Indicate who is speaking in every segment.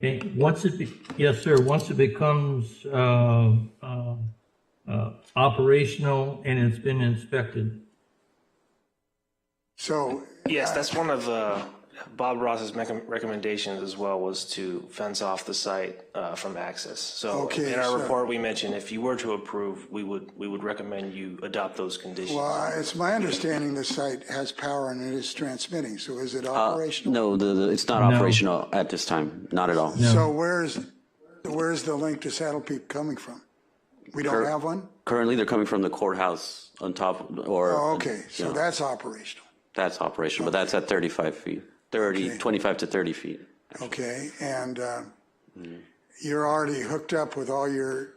Speaker 1: Okay, once it, be- yes, sir, once it becomes uh, uh, uh, operational and it's been inspected.
Speaker 2: So,
Speaker 3: Yes, that's one of uh, Bob Ross's mec- recommendations as well, was to fence off the site uh, from access. So
Speaker 2: Okay,
Speaker 3: in our
Speaker 2: so-
Speaker 3: report, we mentioned if you were to approve, we would, we would recommend you adopt those conditions.
Speaker 2: well, it's my understanding the site has power and it is transmitting, so is
Speaker 4: Uh,
Speaker 2: it operational?
Speaker 4: No, the, the, it's not operational at this time, not at all.
Speaker 2: So where's, where's the link to Saddle Peak coming from? We don't
Speaker 4: Cur-
Speaker 2: have one?
Speaker 4: Currently, they're coming from the courthouse on top or.
Speaker 2: Oh, okay, so
Speaker 4: Yeah,
Speaker 2: that's operational,
Speaker 4: That's operational, but that's at 35 feet, 30, 25 to 30 feet.
Speaker 2: okay? And uh,
Speaker 4: Mm-hmm.
Speaker 2: you're already hooked up with all your,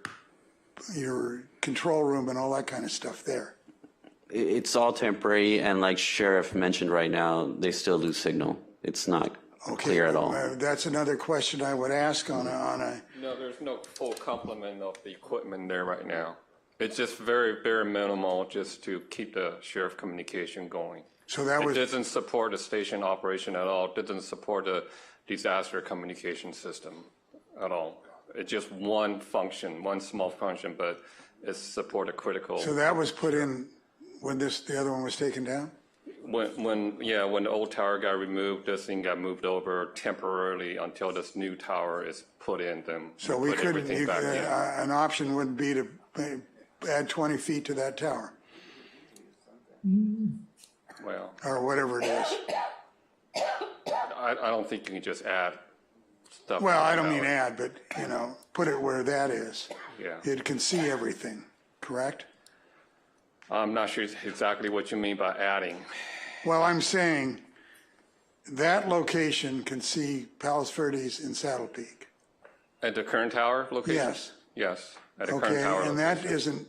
Speaker 2: your control room and all that kind of stuff there.
Speaker 4: I- It's all temporary and like Sheriff mentioned right now, they still lose signal. It's not
Speaker 2: Okay,
Speaker 4: clear at all.
Speaker 2: uh, That's another question I would ask on a, on a,
Speaker 5: No, there's no full complement of the equipment there right now. It's just very, very minimal just to keep the sheriff communication going.
Speaker 2: so that
Speaker 5: It
Speaker 2: was.
Speaker 5: doesn't support the station operation at all, It doesn't support the disaster communication system at all. It's just one function, one small function, but it's support a critical.
Speaker 2: So that was put in when this, the other one was taken down?
Speaker 5: When, when, yeah, when the old tower got removed, this thing got moved over temporarily until this new tower is put in, then.
Speaker 2: So we
Speaker 5: put
Speaker 2: couldn't,
Speaker 5: everything
Speaker 2: you-
Speaker 5: back in.
Speaker 2: uh, an option would be to uh, add 20 feet to that tower
Speaker 5: Well.
Speaker 2: or whatever it is.
Speaker 5: I, I don't think you can just add stuff.
Speaker 2: Well, I
Speaker 5: like
Speaker 2: don't
Speaker 5: that.
Speaker 2: mean add, but, you know, put it where that is.
Speaker 5: Yeah,
Speaker 2: It can see everything, correct?
Speaker 5: I'm not sure exactly what you mean by adding.
Speaker 2: Well, I'm saying that location can see Palos Verdes and Saddle Peak.
Speaker 5: At the current tower location?
Speaker 2: Yes,
Speaker 5: Yes, at the current
Speaker 2: okay,
Speaker 5: tower.
Speaker 2: and
Speaker 5: location.
Speaker 2: that isn't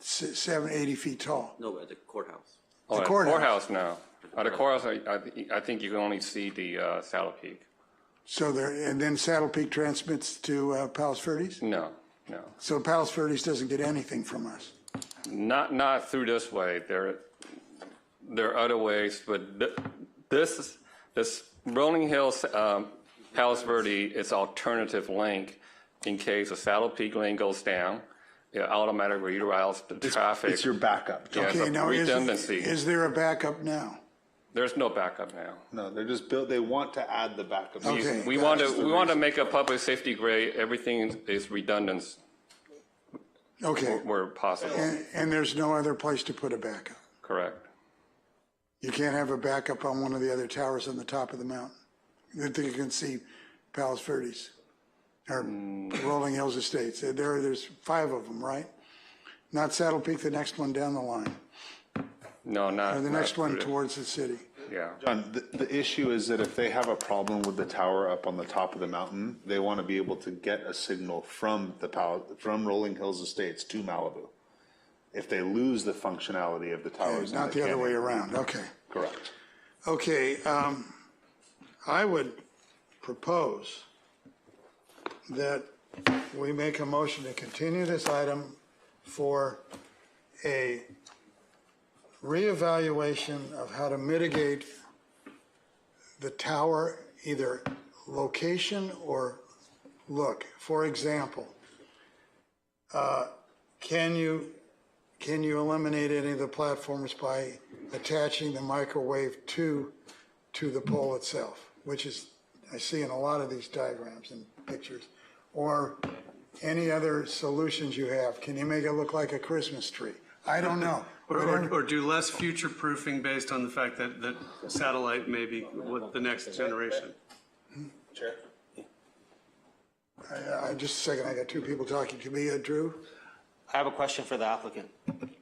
Speaker 2: se- seven, 80 feet tall.
Speaker 4: No, at the courthouse.
Speaker 5: Oh, at the
Speaker 2: courthouse.
Speaker 5: courthouse now. At the courthouse, I, I thi- I think you can only see the uh, Saddle Peak.
Speaker 2: So there, and then Saddle Peak transmits to uh, Palos Verdes?
Speaker 5: No, no,
Speaker 2: So Palos Verdes doesn't get anything from us.
Speaker 5: not, not through this way. There, there are other ways, but th- this, is- this Rolling Hills, um, Palos Verde is alternative link in case the Saddle Peak lane goes down. It automatically reroutes the traffic.
Speaker 6: It's your backup. John.
Speaker 5: Yeah, it's
Speaker 2: Okay,
Speaker 5: a
Speaker 2: now is,
Speaker 5: redundancy.
Speaker 2: is there a backup now?
Speaker 5: There's no backup now.
Speaker 6: No, they're just built, they want to add the backup.
Speaker 2: Okay.
Speaker 5: We
Speaker 2: that's
Speaker 5: want to, we want to make a public safety grade, everything is redundant
Speaker 2: Okay,
Speaker 5: where possible,
Speaker 2: and, and there's no other place to put a backup?
Speaker 5: correct?
Speaker 2: You can't have a backup on one of the other towers on the top of the mountain? That you can see Palos Verdes or
Speaker 5: Mm.
Speaker 2: Rolling Hills Estates. There, there's five of them, right? Not Saddle Peak, the next one down the line,
Speaker 5: No, not.
Speaker 2: or the
Speaker 5: not
Speaker 2: next one
Speaker 5: through the-
Speaker 2: towards the city.
Speaker 5: Yeah.
Speaker 6: John, the, the issue is that if they have a problem with the tower up on the top of the mountain, they want to be able to get a signal from the power, from Rolling Hills Estates to Malibu. If they lose the functionality of the
Speaker 5: Oh,
Speaker 6: towers. then
Speaker 2: Not
Speaker 6: they
Speaker 2: the other
Speaker 6: can't-
Speaker 2: way around, okay.
Speaker 6: Correct.
Speaker 2: Okay, um, I would propose that we make a motion to continue this item for a reevaluation of how to mitigate the tower, either location or look. For example, uh, can you can you eliminate any of the platforms by attaching the microwave to, to the pole itself? Which is, I see in a lot of these diagrams and pictures. Or any other solutions you have? Can you make it look like a Christmas tree? I don't know.
Speaker 7: Or, or- or do less future proofing based on the fact that, that satellite may be what the next generation.
Speaker 2: I, I, Uh, just a second, I got two people talking to me. Uh, Drew,
Speaker 8: I have a question for the applicant.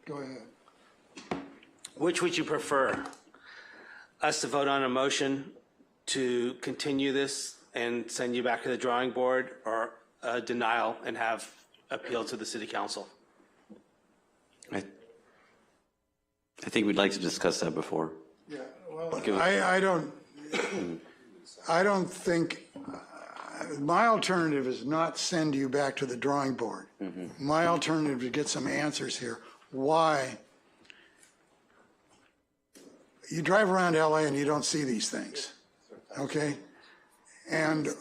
Speaker 2: go ahead.
Speaker 8: Which would you prefer? Us to vote on a motion to continue this and send you back to the drawing board or a denial and have appeal to the city council?
Speaker 4: I I think we'd like to discuss that before.
Speaker 2: I, I don't, I don't think, uh, my alternative is not send you back to the drawing board. My alternative is get some answers here. Why? You drive around LA and you don't see these things, okay? And